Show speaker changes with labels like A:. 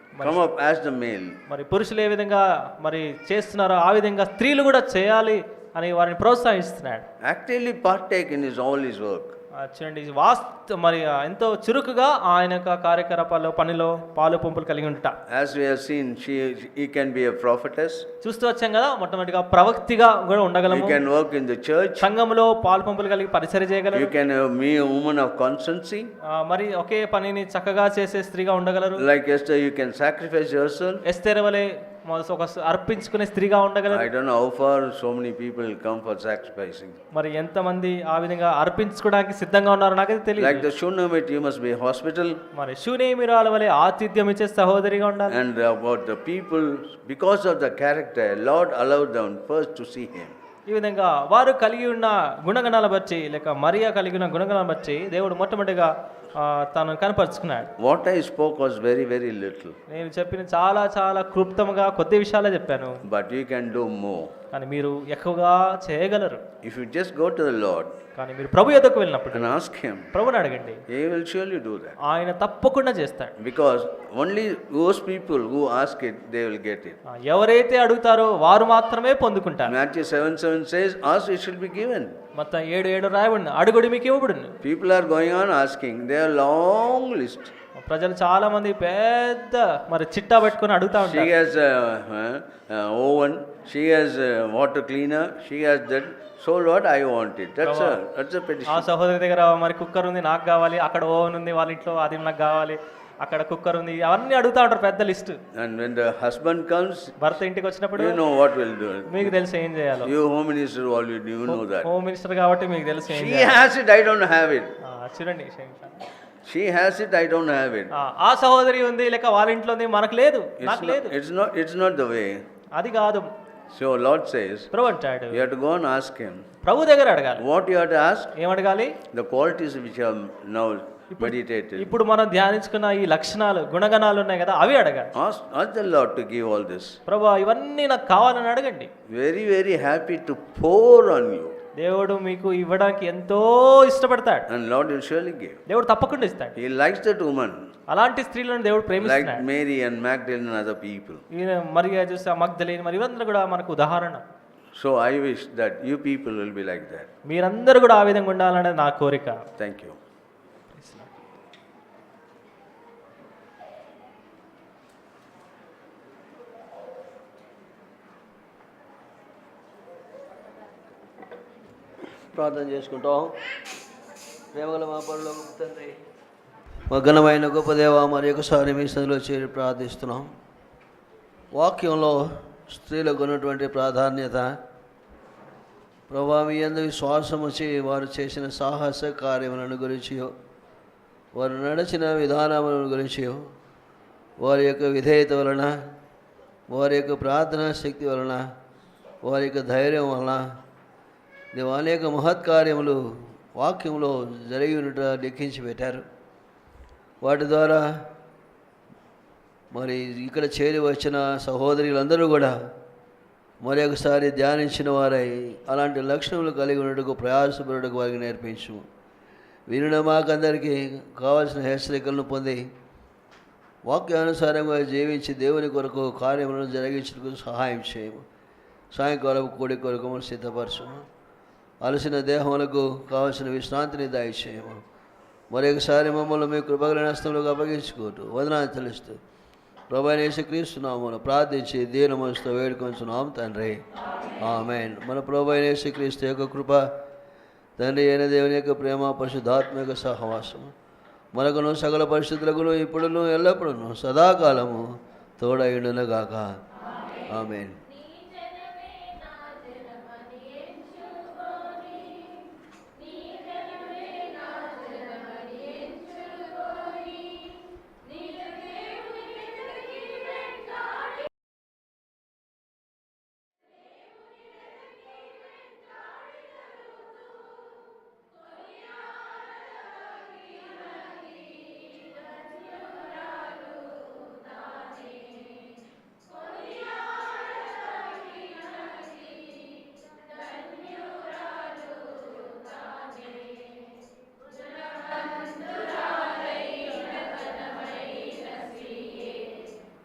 A: come up as the male.
B: మరి పురుషులు ఏ విధంగా మరి చేస్తున్నారో ఆ విధంగా స్త్రీలు కూడా చేయాలి అని వారిని ప్రోత్సహిస్తున్నాడు
A: Actively partake in his all his work.
B: ఆ, చూడండి ఇది వాస్త మరి ఆ, ఎంతో చురుకుగా ఆయన యొక్క కార్యకలాపాల్లో పనిలో పాలు పంపులు కలిగి ఉంట
A: As we have seen, she, he can be a prophetess,
B: చూస్తూ వచ్చాం కదా మొట్టమొదటిగా ప్రవక్తిగా కూడా
A: he
B: ఉండగలము
A: can work in the church,
B: సంఘములో పాలు పంపులు కలిగి పరిచయం
A: you
B: చేయగలరు
A: can have me a woman of constancy.
B: ఆ, మరి ఒకే పనిని చక్కగా చేసే స్త్రీగా ఉండగలరు
A: Like Esther, you can sacrifice yourself.
B: Esther వలె మొదట ఒక స- అర్పించుకునే స్త్రీగా ఉండగలరు
A: I don't know how far so many people come for sacrificing.
B: మరి ఎంతమంది ఆ విధంగా అర్పించుకోవడానికి సిద్ధంగా ఉన్నారో నాకైతే తెలియదు
A: Like the Shunammite, you must be hospital.
B: మరి శూనేమిరాల వలె ఆతిథ్యం ఇచ్చే సహోదరిగా ఉండాలి
A: And about the people, because of the character, Lord allowed them first to see him.
B: ఈ విధంగా వారు కలిగి ఉన్న గుణగణాల బట్టి లేక మరియా కలిగి ఉన్న గుణగణాలను బట్టి దేవుడు మొట్టమొదటిగా ఆ, తను కనపరుచుకున్నాడు
A: What I spoke was very, very little,
B: నేను చెప్పిన చాలా చాలా క్లుప్తంగా కొద్ది విషయాలే చెప్పాను
A: but you can do more.
B: కానీ మీరు ఎక్కువగా చేయగలరు
A: If you just go to the Lord
B: కానీ మీరు ప్రభు యొద్దకు వెళ్ళినప్పుడు
A: and ask him,
B: ప్రభుని అడగండి
A: he will surely do that.
B: ఆయన తప్పకుండా చేస్తాడు
A: Because only those people who ask it, they will get it.
B: ఆ, ఎవరైతే అడుగుతారో వారు మాత్రమే పొందుకుంటారు
A: Matthew 7 7 says, Ask, it shall be given.
B: మొత్తం ఏడు ఏడు రాయబడిన అడుగుడు మీకు ఇవ్వబడును
A: People are going on asking. They are long list.
B: ప్రజలు చాలా మంది పెద్ద మరి చిట్టా పెట్టుకొని అడుగుతా
A: She
B: ఉంటారు
A: has a uh, uh, oven, she has a water cleaner, she has that. So, Lord, I want it. That's a, that's a petition.
B: ఆ సహోదరి దగ్గర మరి కుక్కర్ ఉంది నాకు కావాలి అక్కడ ఓవెన్ ఉంది వాళ్ళ ఇంట్లో అది నాకు కావాలి అక్కడ కుక్కర్ ఉంది అవన్నీ అడుగుతా ఉంటారు పెద్ద list
A: And when the husband comes,
B: భర్త ఇంటికి వచ్చినప్పుడు
A: you know what will do.
B: మీకు తెలుసు ఏం చేయాలో
A: You home minister, all you do, you know that.
B: Home minister కాబట్టి మీకు తెలుసు ఏం
A: She
B: చేయాలో.
A: has it, I don't have it.
B: ఆ, చూడండి క్షమించండి.
A: She has it, I don't have it.
B: ఆ, ఆ సహోదరి ఉంది లేక వాళ్ళ ఇంట్లో ఉంది మనకు లేదు
A: It's
B: నాకు
A: not,
B: లేదు
A: it's not, it's not the way.
B: అది కాదు
A: So Lord says,
B: ప్రభు అంటాడు
A: you have to go and ask Him.
B: ప్రభు దగ్గర అడగాలి
A: What you have to ask?
B: ఏం అడగాలి
A: The qualities which are now meditated.
B: ఇప్పుడు మనం ధ్యానించుకున్న ఈ లక్షణాలు గుణగణాలు ఉన్నాయి కదా అవి అడగాలి
A: Ask, ask the Lord to give all this.
B: ప్రభు ఇవన్నీ నాకు కావాలని అడగండి
A: Very, very happy to pour on you.
B: దేవుడు మీకు ఇవ్వడానికి ఎంతో ఇష్టపడతాడు
A: And Lord will surely give.
B: దేవుడు తప్పకుండా ఇస్తాడు
A: He likes that woman,
B: అలాంటి స్త్రీలను దేవుడు
A: like
B: ప్రేమిస్తున్నాడు
A: Mary and Magdalene and other people.
B: ఈయన మరి చూస్తే మగ్ధలేని మరి ఇవందరూ కూడా మనకు ఉదాహరణ
A: So I wish that you people will be like that.
B: మీరందరూ కూడా ఆ విధంగా ఉండాలనేది నా కోరిక
A: Thank you.
C: ప్రార్థన చేసుకుంటాం ప్రేమగల మా పనులు తండ్రి మా ఘనమైన గొప్ప దేవ మరి ఒకసారి మీ సందులో చేరి ప్రార్థిస్తున్నాం వాక్యంలో స్త్రీలకు ఉన్నటువంటి ప్రాధాన్యత ప్రభా మీ అందు విశ్వాసం వచ్చి వారు చేసిన సాహస కార్యములను గురించి వారు నడిచిన విధానములను గురించి వారి యొక్క విధేయత వలన వారి యొక్క ప్రార్థనా శక్తి వలన వారి యొక్క ధైర్యం వలన దేవు అనేక మహత్కార్యములు వాక్యంలో జరిగి ఉండట లెక్కించి పెట్టారు వాటి ద్వారా మరి ఇక్కడ చేరి వచ్చిన సహోదరులందరూ కూడా మరి ఒకసారి ధ్యానించిన వారై అలాంటి లక్షణములు కలిగి ఉన్నట్టుకు ప్రయాసపడుటకు వారికి నేర్పించు వినిన మాకందరికీ కావలసిన హెచ్చరికలను పొంది వాక్యానుసారంగా జీవించి దేవుని కొరకు కార్యములను జరిగించడానికి సహాయం చేయము సాయంకాలం కూడి కొరకు మనం సిద్ధపరచము అలసిన దేహములకు కావలసిన విశ్రాంతిని దయచేయము మరొకసారి మమ్మల్ని మీ కృపగల హస్తంలోకి అప్పగించుకోవటం వదనాన్ని తెలుస్తూ ప్రభాని యేసుక్రీస్తున్నాము ప్రార్థించి దీన మనసుతో వేడుకొంచున్నాం తండ్రి ఆమెన్ మన ప్రభాని యేసుక్రీస్తు యొక్క కృప తండ్రి అయిన దేవుని యొక్క ప్రేమ పరిశుద్ధాత్మ యొక్క సహవాసము మనకును సకల పరిస్థితులకును ఇప్పుడును ఎల్లప్పుడూ సదాకాలము తోడయుండునగాక ఆమెన్